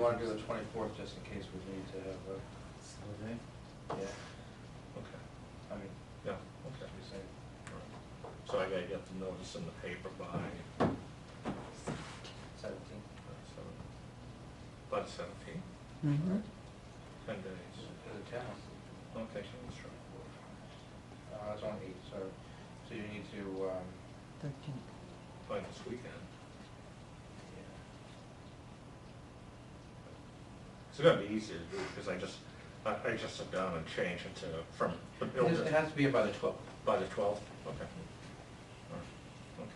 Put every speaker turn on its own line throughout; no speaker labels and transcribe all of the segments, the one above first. wanna do the twenty-fourth, just in case we need to have a,
Okay.
yeah,
Okay,
I mean,
yeah,
we
okay.
say,
All right. So I gotta get the notice in the paper by uh,
seventeen.
by the seventeenth,
Mhm.
ten days.
Is it ten?
Okay, that's right.
Uh, it's on eight, so, so you need to, um,
Thirteenth.
By this weekend.
yeah,
It's gonna be easier to do, because I just, I, I just sit down and change it to, from the
it has-
building.
it has to be in by the twelfth.
By the twelfth, okay. All right, Okay.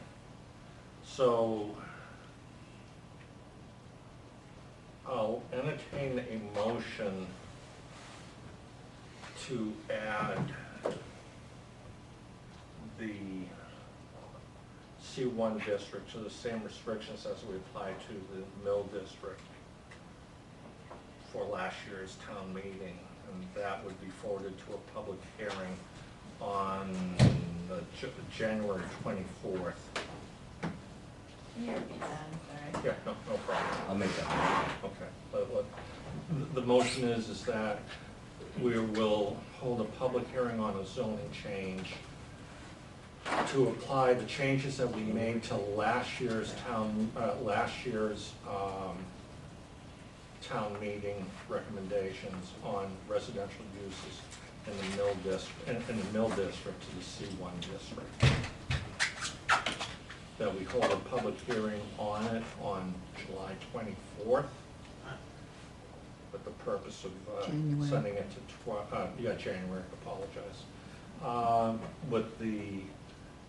So I'll entertain a motion to add the C one district to the same restrictions as we apply to the mill district for last year's town meeting, and that would be forwarded to a public hearing on the J- January twenty-fourth.
Can you repeat that, I'm sorry?
Yeah, no, no problem,
I'll make that.
okay. But what, the- the motion is, is that we will hold a public hearing on a zoning change to apply the changes that we made to last year's town, uh, last year's, um, town meeting recommendations on residential uses in the mill district, in, in the mill district to the C one district. That we hold a public hearing on it on July twenty-fourth with the purpose of, uh,
January.
sending it to tw- uh, yeah, January, apologize. Um, with the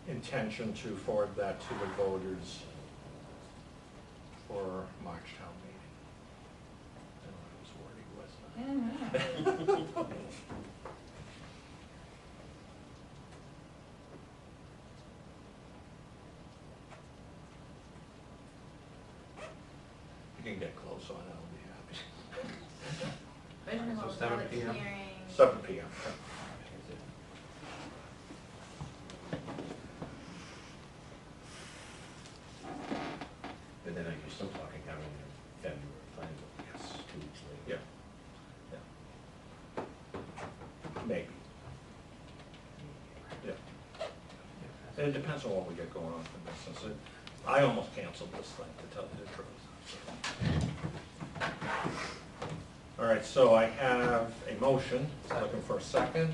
intention to forward that to the voters for March town meeting. I don't know if it was wordy, wasn't
I
it?
don't know.
You can get close on it, I'll be happy.
Original
So
public
7 p.m.
hearing.
Seven P M.
But then you're still talking having a February planning board,
Yes.
two weeks
Yeah,
later.
yeah. Maybe, yeah. And it depends on what we get going on for business. I almost canceled this thing, to tell you the truth. All right, so I have a motion, looking for a second.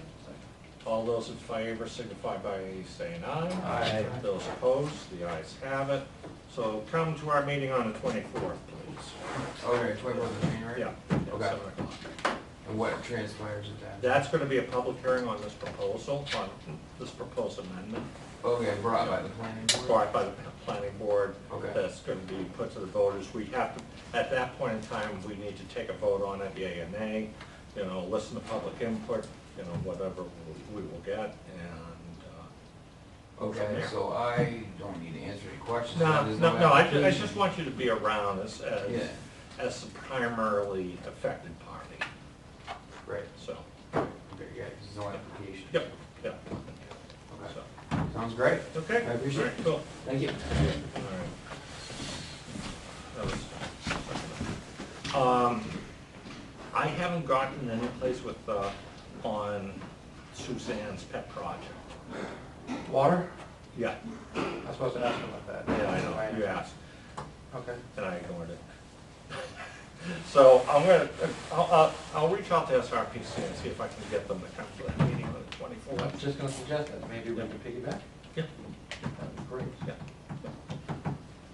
All those in favor signify by saying aye.
Aye.
Those opposed, the ayes have it. So come to our meeting on the twenty-fourth, please.
Okay, twenty-fourth of January?
Yeah. at
Okay.
seven o'clock.
And what transpires at that?
That's gonna be a public hearing on this proposal, on this proposed amendment
Okay, brought by the planning board?
brought by the planning board.
Okay.
That's gonna be put to the voters. We have to, at that point in time, we need to take a vote on it, yea or nay. You know, listen to public input, you know, whatever we we will get, and, uh,
Okay, so I don't need to answer any questions.
no,
There's
no, no, I, ju- I
application.
just want you to be around as, as,
Yeah.
as the primarily affected party,
Right,
so,
okay, yeah, 'cause there's no application.
yep, yep.
Okay,
So,
sounds great.
Okay?
I appreciate
All right, Cool.
Thank you.
All right. That was- Um, I haven't gotten any place with, uh, on Suzanne's pet project.
Water?
Yeah,
I'm supposed to ask him about that.
yeah, I know, you asked,
Okay.
and I ignored it. So I'm gonna, uh, I'll, I'll, I'll reach out to SRPC and see if I can get them to come to that meeting on the
Well, I'm
twenty-fourth.
just gonna suggest that, maybe we can piggyback,
Yeah,
that'd be great.
yeah, yeah.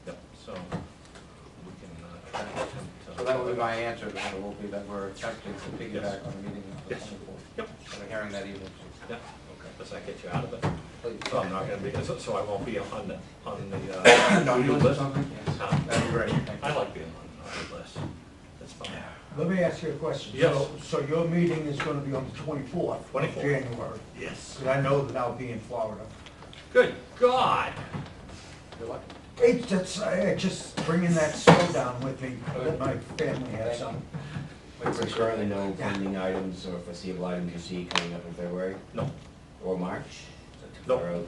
Yep, so we can, uh, attempt to-
So that will be my answer, then, it will be that we're attempting to piggyback on the meeting of the
Yes.
twenty-fourth.
Yep,
I'm hearing that evening,
yeah, okay, does that get you out of it?
please.
So I'm not gonna be, so- so I won't be on the, on the, uh,
Don't
to-do
you
list?
listen something? Yes.
No.
That'd be great, thank you.
I like being on the to-do list, that's fine.
Let me ask you a question.
Yes.
So- So your meeting is gonna be on the twenty-fourth of
24th.
January?
Yes.
Because I know that I'll be in Florida.
Good God!
Good luck.
It's, it's, I I just bringing that snow down with me, that my family um, had some.
So currently no pending items or foreseeable items you see coming up in February
No,
or March?
No.
Or, um,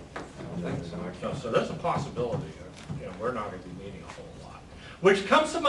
think so.
March?
no, so there's a possibility, uh, you know, we're not gonna be meeting a whole lot, which comes to my